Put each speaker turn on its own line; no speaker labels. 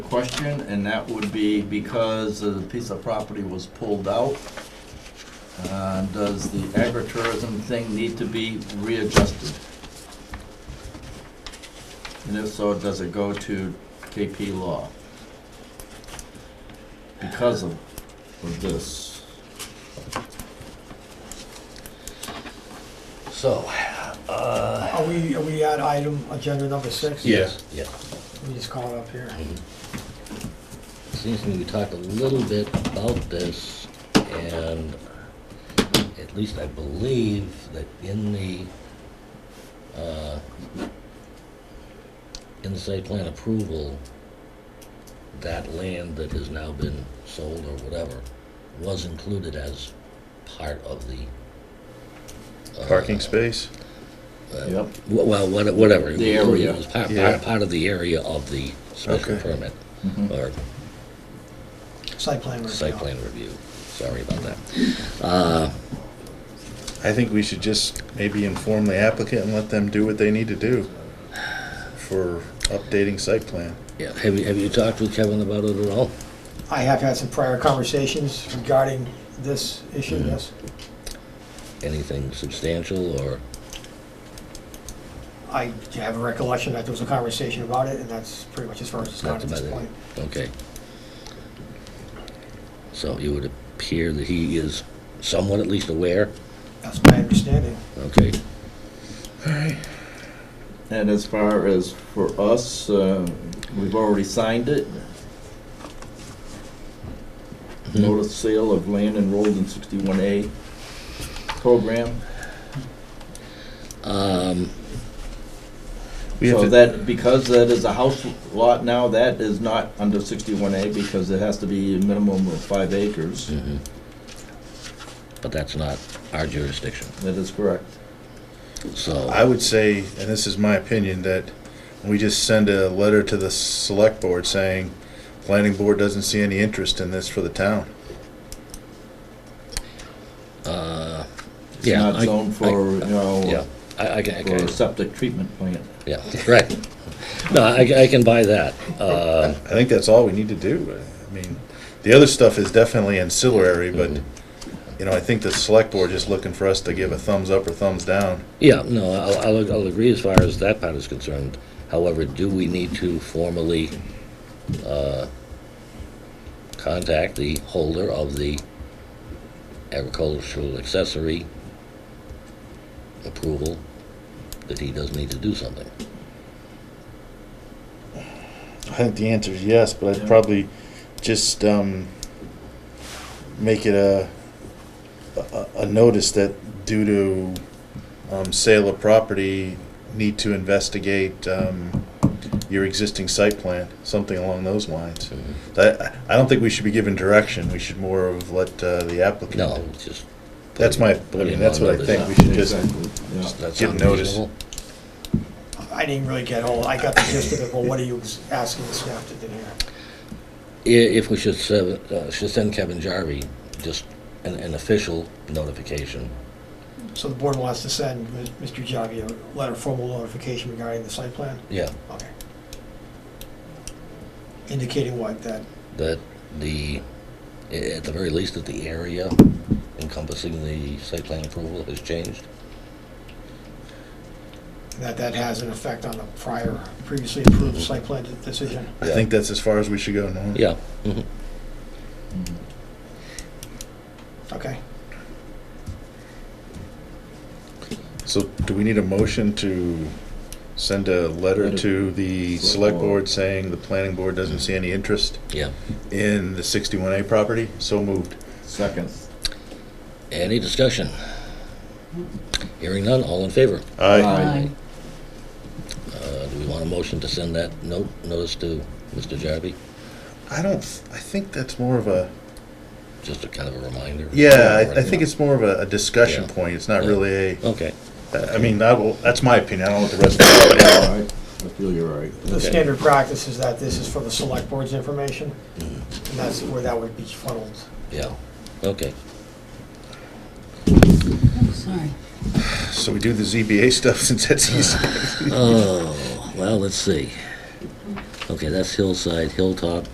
question, and that would be because the piece of property was pulled out. Uh, Does the agritourism thing need to be readjusted? And if so, does it go to KP Law? Because of, of this.
So, uh,
Are we, are we at item, agenda number six?
yeah,
Let me just call it up here.
seems to me we talked a little bit about this, and at least I believe that in the, uh, in the site plan approval, that land that has now been sold or whatever was included as part of the. uh,
Parking space?
uh,
Yep.
Wh- Well, what- whatever.
The area.
It was part,
Yeah.
part, part of the area of the special
Okay.
permit
Mhm.
or
Site plan review.
site plan review. Sorry about that. Uh,
I think we should just maybe inform the applicant and let them do what they need to do for updating site plan.
yeah, have you, have you talked with Kevin about it at all?
I have had some prior conversations regarding this issue,
Mhm.
yes.
Anything substantial or,
I have a recollection that there was a conversation about it, and that's pretty much as far as it's gone at this
That's about it.
point.
okay. So it would appear that he is somewhat at least aware,
That's my understanding.
okay?
And as far as for us, uh, we've already signed it.
Mm-hmm.
Notice sale of land enrolled in sixty-one A program.
Um,
We have
So
to-
that, because that is a house lot now, that is not under sixty-one A because it has to be a minimum of five acres.
mhm. But that's not our jurisdiction,
Mm-hmm.
That is correct.
so.
I would say, and this is my opinion, that we just send a letter to the select board saying, planning board doesn't see any interest in this for the town.
Uh,
It's
Yeah,
not
I-
zoned for, you
yeah,
know,
I, I can, I
for a
can,
septic treatment plant.
yeah, right. No, I, I can buy that. Uh,
I think that's all we need to do. I mean, the other stuff is definitely ancillary, but, you know, I think the select board just looking for us to give a thumbs up or thumbs down.
yeah, no, I'll, I'll, I'll agree as far as that part is concerned. However, do we need to formally, uh, contact the holder of the agricultural accessory approval that he does need to do something?
I think the answer is yes, but
Yeah.
I'd probably just um, make it a, a a notice that due to um, sale of property, need to investigate um, your existing site plan, something along those lines.
Mm-hmm.
I, I don't think we should be given direction. We should more of let uh, the applicant.
No, just. put
That's
it-
my
put
opinion.
it
That's
on
what I
notice.
think. We should just-
Exactly, yeah.
That's
give
not
notice.
reasonable.
I didn't really get all, I got the gist of it, but what are you asking the staff to do here?
I- If we should, se- uh, should send Kevin Jarvie just an, an official notification.
So the board wants to send Mr. Javi a letter, formal notification regarding the site plan?
Yeah.
Okay. Indicating what, that
That the, i- at the very least, that the area encompassing the site plan approval has changed.
that that has an effect on the prior, previously approved site plan de- decision.
I
Yeah.
think that's as far as we should go. No?
Yeah. mhm.
Mhm.
Okay.
So do we need a motion to send a letter
Letter.
to the
Select
select
board.
board saying the planning board doesn't see any interest
Yeah.
in the 61A property? So moved.
Second.
Any discussion? Hearing none, all in favor?
Aye.
Aye.
Uh, do we want a motion to send that note, notice to Mr. Jarvie?
I don't, I think that's more of a,
Just a kind of a reminder?
yeah, I I think it's more of a a discussion
Yeah.
point. It's not
Yeah.
really a,
Okay.
I mean, I will- that's my opinion. I don't know what the rest of
All right. I feel you're right.
The
Okay.
standard practice is that this is for the select board's information, and that's where that would be funneled.
Yeah, okay.
Oh, sorry.
So we do the ZBA stuff since that's easy.
Oh, well, let's see. Okay, that's hillside, hilltop,